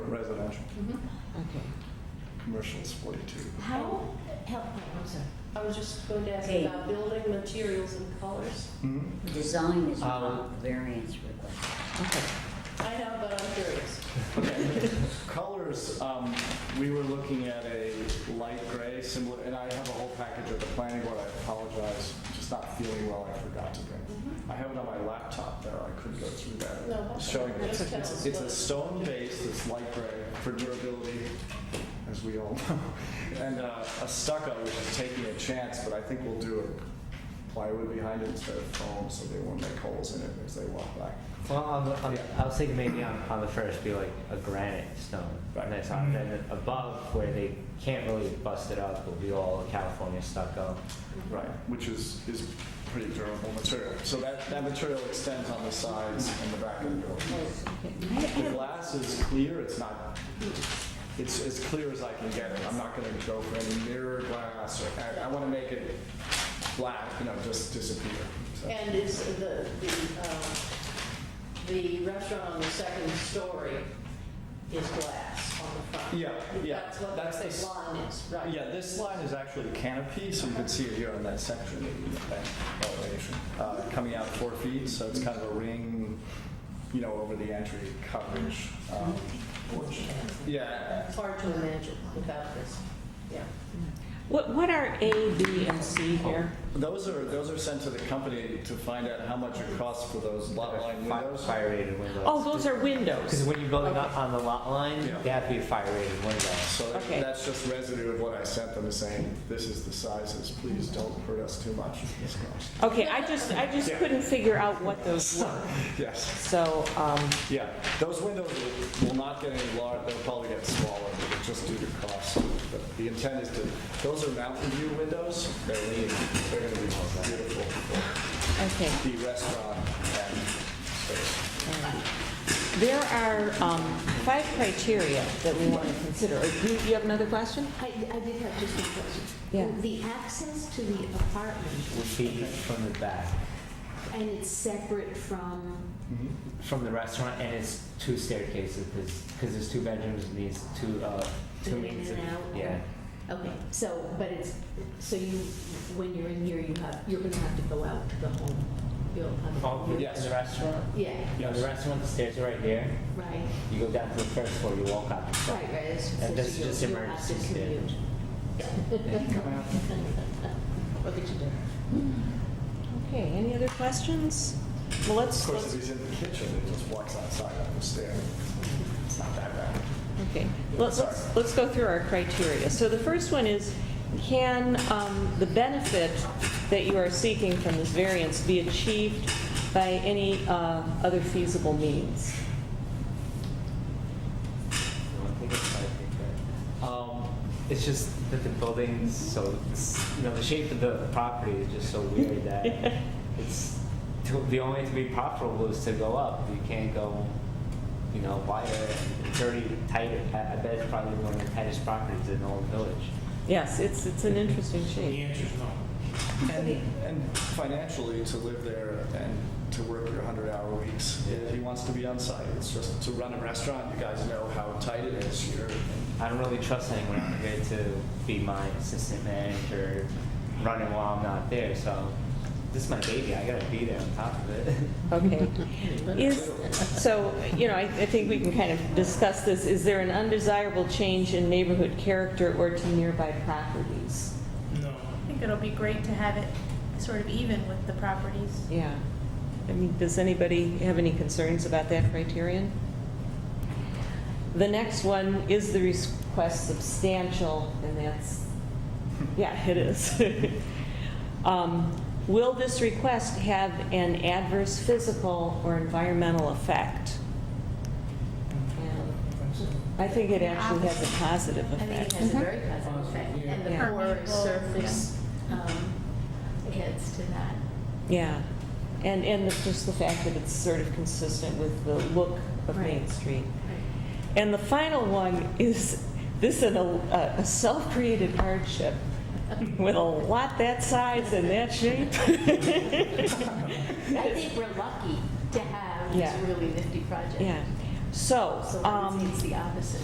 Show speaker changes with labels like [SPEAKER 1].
[SPEAKER 1] residential,
[SPEAKER 2] Okay.
[SPEAKER 1] commercial's forty-two.
[SPEAKER 2] How, help me, I'm sorry.
[SPEAKER 3] I was just going to ask
[SPEAKER 4] Hey.
[SPEAKER 3] about building materials and colors.
[SPEAKER 1] Hmm?
[SPEAKER 4] Design is
[SPEAKER 5] Um,
[SPEAKER 4] not variance request.
[SPEAKER 2] Uh, Okay.
[SPEAKER 3] I know, but I'm curious.
[SPEAKER 5] Okay. Colors, um, we were looking at a light gray similar, and I have a whole package of the planning board, I apologize, just not feeling well, I forgot to bring. I have it on my laptop though, I couldn't go through that.
[SPEAKER 3] No, that's
[SPEAKER 5] Showing,
[SPEAKER 3] okay. Just tell
[SPEAKER 5] it's,
[SPEAKER 3] us
[SPEAKER 5] it's a
[SPEAKER 3] what-
[SPEAKER 5] stone base that's light gray for durability, as we all know. And uh, a stucco, which is taking a chance, but I think we'll do a plywood behind it instead of foam, so they won't make holes in it as they walk by.
[SPEAKER 6] Well, on the, on, I was thinking maybe on, on the first be like a granite stone,
[SPEAKER 5] Right.
[SPEAKER 6] and that's
[SPEAKER 4] Mm-hmm.
[SPEAKER 6] on, and then above where they can't really bust it up will be all California stucco.
[SPEAKER 5] Right, which is, is pretty durable material. So that, that material extends on the sides and the back of the building. The glass is clear, it's not, it's as clear as I can get it. I'm not gonna go for any mirror glass or, I, I wanna make it black, you know, just disappear. So,
[SPEAKER 3] And is the, the, um, the restaurant on the second story is glass on the front?
[SPEAKER 5] Yeah, yeah,
[SPEAKER 3] That's what
[SPEAKER 5] that's
[SPEAKER 3] the
[SPEAKER 5] the-
[SPEAKER 3] line is, right?
[SPEAKER 5] Uh, Yeah, this line is actually a canopy, so you can see it here on that section, maybe, that elevation. Uh, coming out four feet, so it's kind of a ring, you know, over the entry coverage. Um, Yeah,
[SPEAKER 3] It's hard to imagine without this, yeah.
[SPEAKER 2] What, what are A, B, and C here?
[SPEAKER 5] Those are, those are sent to the company to find out how much it costs for those lot line
[SPEAKER 6] Fi-
[SPEAKER 5] windows.
[SPEAKER 6] Fire rated windows.
[SPEAKER 2] Oh, those are
[SPEAKER 6] Because
[SPEAKER 2] windows.
[SPEAKER 6] when you're building up on the lot line,
[SPEAKER 5] Yeah.
[SPEAKER 6] they have to be fire rated windows.
[SPEAKER 5] So
[SPEAKER 2] Okay.
[SPEAKER 5] that's just residue of what I sent them, is saying, this is the sizes, please don't hurt us too much.
[SPEAKER 2] Okay, I just, I just couldn't figure out what those were.
[SPEAKER 5] Yes,
[SPEAKER 2] So, um,
[SPEAKER 5] yeah, those windows will- will not get any larger, they'll probably get smaller, just due to cost. But The intent is to, those are mountain view windows, they're lean, they're gonna be beautiful for
[SPEAKER 2] okay.
[SPEAKER 5] the restaurant and space.
[SPEAKER 2] There are um, five criteria that we want to consider. Uh, You you have another question?
[SPEAKER 4] I, I did have just one question.
[SPEAKER 2] Yeah.
[SPEAKER 4] The access to the apartment,
[SPEAKER 6] Would be from the back,
[SPEAKER 4] and it's separate from,
[SPEAKER 6] from the restaurant, and it's two staircases, because there's two bedrooms and these two, uh, two
[SPEAKER 4] In and
[SPEAKER 6] means of-
[SPEAKER 4] out.
[SPEAKER 6] Yeah.
[SPEAKER 4] okay, so, but it's, so you, when you're in here, you have, you're gonna have to go out to the home. You'll have.
[SPEAKER 6] Oh,
[SPEAKER 4] you're-
[SPEAKER 6] in the restaurant?
[SPEAKER 4] Yeah,
[SPEAKER 6] Yeah, the restaurant, the stairs are right here.
[SPEAKER 4] right,
[SPEAKER 6] You go down to the first floor, you walk out the
[SPEAKER 4] right,
[SPEAKER 6] front.
[SPEAKER 4] right. it's-
[SPEAKER 6] And this is
[SPEAKER 4] you'll-
[SPEAKER 6] just
[SPEAKER 4] you'll have to
[SPEAKER 6] emergency
[SPEAKER 4] commute.
[SPEAKER 6] standards.
[SPEAKER 3] Look at you doing.
[SPEAKER 2] Okay, any other questions? Well,
[SPEAKER 5] Of
[SPEAKER 2] let's,
[SPEAKER 5] course,
[SPEAKER 2] let's-
[SPEAKER 5] if he's in the kitchen, he just walks outside on the stair. It's not that bad.
[SPEAKER 2] okay, let's, let's- let's go through our criteria. So the first one is, can um, the benefit that you are seeking from this variance be achieved by any uh, other feasible means?
[SPEAKER 6] I think it's five feet, right? Um, it's just that the building's so, it's, you know, the shape of the property is just so weird that it's, to- the only way to be profitable is to go up. You can't go, you know, wider, it's already tighter. I I bet it's probably one of the tightest properties in the whole village.
[SPEAKER 2] Yes, it's, it's an interesting shape.
[SPEAKER 5] And, and financially, to live there and to work your 100-hour weeks, he wants to be on site. It's just to run a restaurant, you guys know how tight it is here.
[SPEAKER 6] I don't really trust anyone out here to be my assistant manager, running while I'm not there, so this is my baby, I gotta be there on top of it.
[SPEAKER 2] Okay. Is, so, you know, I, I think we can kind of discuss this. Is there an undesirable change in neighborhood character or to nearby properties?
[SPEAKER 7] I think it'll be great to have it sort of even with the properties.
[SPEAKER 2] Yeah. I mean, does anybody have any concerns about that criterion? The next one, is the request substantial? And that's, yeah, it is. Um, Will this request have an adverse physical or environmental effect? And I think it actually has a positive
[SPEAKER 4] I think it
[SPEAKER 2] effect.
[SPEAKER 4] has a very positive effect, and the
[SPEAKER 2] Yeah.
[SPEAKER 4] poor
[SPEAKER 7] Permeable,
[SPEAKER 4] surface, um, adds to that.
[SPEAKER 2] Yeah. And, and the- just the fact that it's sort of consistent with the look of Main
[SPEAKER 4] Right.
[SPEAKER 2] Street. And the final one is, this is a, a self-created hardship with a lot that size and that shape.
[SPEAKER 4] I think we're lucky to have this
[SPEAKER 2] Yeah.
[SPEAKER 4] really nifty project.
[SPEAKER 2] Yeah, so,
[SPEAKER 4] So I would say
[SPEAKER 2] um,
[SPEAKER 4] it's the opposite.